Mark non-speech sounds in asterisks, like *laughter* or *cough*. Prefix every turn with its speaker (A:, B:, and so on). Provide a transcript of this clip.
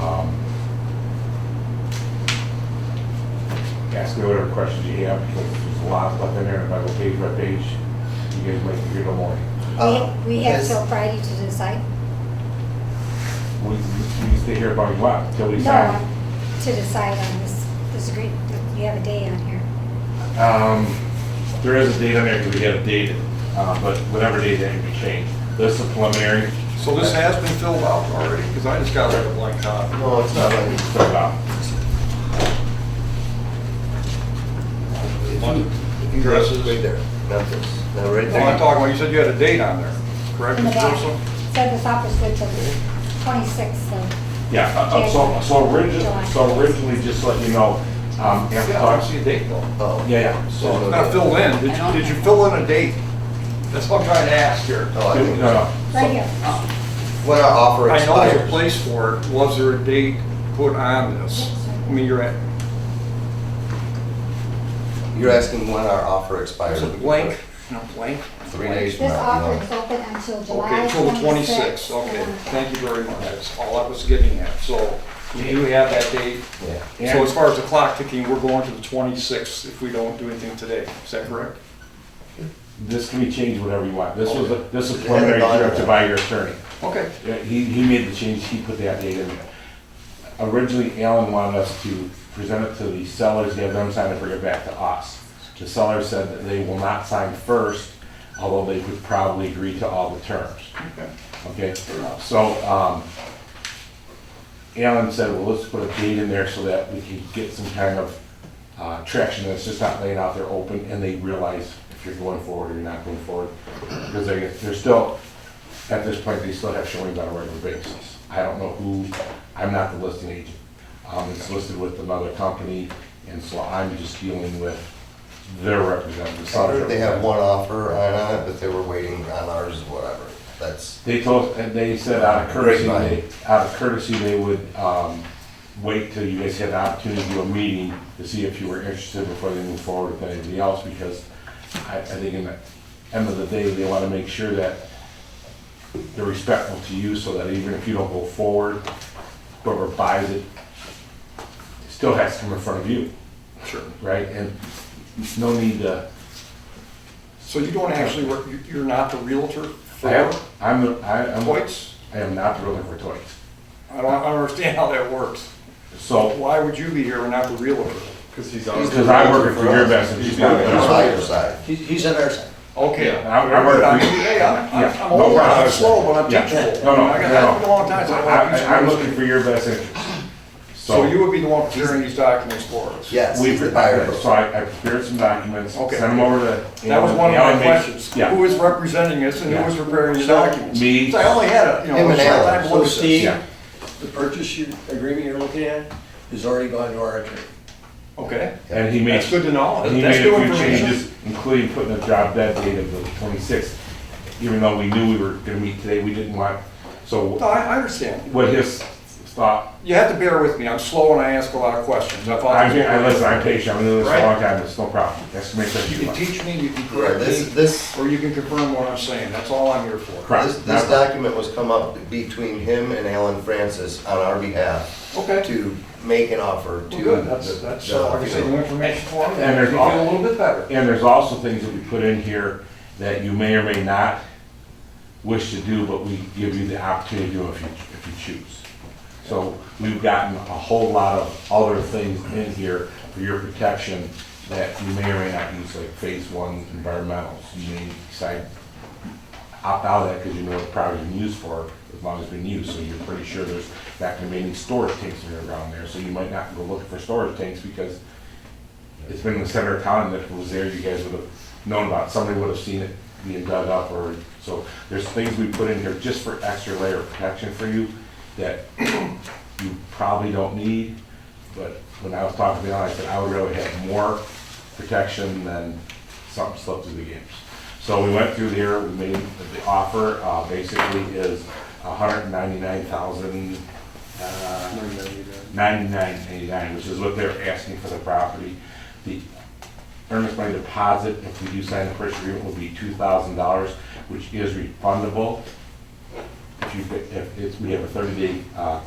A: Um, ask me whatever questions you have, because there's a lot left in there, and if I go page by page, you guys might be here till morning.
B: Uh,
C: Um,
D: We, we have
B: is-
D: till Friday to decide?
A: We, we can stay here about a lot, till we
D: No,
A: sign.
D: to decide on this, this agreement, you have a day on here.
A: Um, there is a date on there, because we have dated, uh, but whatever date that can be changed. This is preliminary,
C: So this has been filled out already, because I just got rid of blank copy.
B: No, it's not like,
A: so, uh,
B: if you
C: Dresses.
B: look right there, not this, now right
C: No, I'm
B: there.
C: talking about, you said you had a date on there, correct,
D: In the
C: Mr.
D: back.
C: Russell?
D: Said this office good till the twenty-sixth of,
A: yeah, uh, uh, so, so originally, so originally, just to let you know, um, after
C: Yeah, I don't
A: talks,
C: see a date though.
B: Oh.
A: yeah, yeah,
C: So
A: so,
C: it's not filled in. Did you, did you fill in a date? That's what I'm trying to ask here.
B: Oh, I
A: no,
B: think-
A: no.
D: right here.
C: uh,
B: When our offer
C: I know there's a
B: expires,
C: place for it. Was there a date put on this? I mean, you're at,
B: you're asking when our offer expires.
C: there's a blank, no blank.
B: Three days from
D: This
B: now. you
D: offer
B: know.
D: is open until
C: Okay,
D: July
C: till the
D: twenty-sixth.
C: 26th, okay, thank you very much, that's all I was getting at, so you do have that date.
B: Yeah.
C: So as far as the clock ticking, we're going to the 26th if we don't do anything today, is that correct?
A: this can be changed whatever you want. This was, a- this was
B: Okay.
A: preliminary directed by your attorney.
C: Okay,
A: Yeah, He, he made the change, he put that date in there. Originally, Alan wanted us to present it to the sellers, have them sign it, bring it back to us. The sellers said that they will not sign first, although they could probably agree to all the terms.
C: okay,
A: Okay, so, um, Alan said, well, let's put a date in there so that we can get some kind of, uh, traction, that's just not laying out there open, and they realize if you're going forward or you're not going forward. Because they, they're still, at this point, they still have showings on a regular basis. I don't know who, I'm not the listing agent. Um, it's listed with another company, and so I'm just dealing with their representative. the
B: I
A: seller's
B: heard they have
A: representative.
B: one offer on it, but they were waiting on ours, or whatever. That's,
A: They told, and they said out of courtesy,
B: Grapevine.
A: they- out of courtesy, they would, um, wait till you guys had the opportunity to do a meeting to see if you were interested before they move forward with anything else, because I, I think in the end of the day, they wanna make sure that they're respectful to you, so that even if you don't go forward, whoever buys it still has to come in front of you,
C: sure.
A: right? And no need to,
C: So you don't actually work, you- you're not the realtor
A: I
C: for
A: am, I'm, the- I am,
C: Hoyt's?
A: I am not the realtor for Toys.
C: I don't I don't understand how that works.
A: So,
C: Why would you be here and not the realtor?
E: Because he's
B: He's
E: on.
A: Because I work for your best and she's not.
B: on our side. He's, he's on our side.
C: Okay.
A: I- I work
C: I'm-
A: for-
C: Hey, I'm, I'm-
A: Yeah,
C: I'm
A: no
C: old, I'm
A: problem.
C: slow, but I'm
A: Yeah.
C: teachable.
A: No, no,
C: I got-
A: no.
C: I've been a long time, so I don't have
A: I, am
C: to-
A: looking for your best interest.
C: So you
A: So
C: would be the one preparing these documents for us?
B: Yes,
A: we
B: he's the buyer.
A: prepared, so I, I prepared some documents, sent
C: Okay.
A: them over to.
C: That was one of
A: Alan
C: my
A: made-
C: questions. Who
A: Yeah,
C: is representing us and who is preparing the documents?
A: Me.
C: So I only had a, you know,
B: Him
C: a
B: and
C: short
B: Alan.
C: time to
F: So
C: look at this.
F: Steve,
A: Yeah.
F: the purchase you- agreement you're looking at has already gone to our attorney.
C: Okay,
A: and he made.
C: that's good to know.
A: He
C: That's
A: made
C: new
A: a few
C: information.
A: changes, including putting a job dead date of the twenty-sixth, even though we knew we were gonna meet today, we didn't want, so
C: No, I, I understand.
A: what his thought,
C: You have to bear with me. I'm slow and I ask a lot of questions. I thought.
A: I, I listen, I'm patient, I've been doing this
C: Right.
A: a long time, it's no problem, that's makes sense.
C: You can teach me, you can
B: Right,
C: correct
B: this,
C: me,
B: this,
C: or you can confirm what I'm saying. That's all I'm here for.
A: Correct.
B: this, this document was come up between him and Alan Francis on our behalf
C: Okay,
B: to make an offer to.
C: well, good. That's, that's,
B: the-
C: uh, like I say, new information for me.
A: And there's
C: You
A: all-
C: feel a little bit better.
A: And there's also things that we put in here that you may or may not wish to do, but we give you the opportunity to do if you, if you choose. So we've gotten a whole lot of other things in here for your protection that you may or may not use, like phase one environmentals. You may decide opt out of that because you know what the property's been used for, as long as it's been used. So you're pretty sure there's not gonna be any storage tanks that are around there, so you might not go looking for storage tanks because it's been in the center of town, and if it was there, you guys would have known about it, somebody would have seen it being dug up, or, so, there's things we put in here just for extra layer of protection for you that *clears throat* you probably don't need, but when I was talking to Alan, I said, I would really have more protection than something slipped through the games. So we went through here, we made, the offer, uh, basically is a hundred and ninety-nine thousand, uh, ninety-nine eighty-nine, which is what they're asking for the property. The earnest money deposit, if we do sign the purchase agreement, will be two thousand dollars, which is refundable. If you, if it's, we have a thirty-day, uh,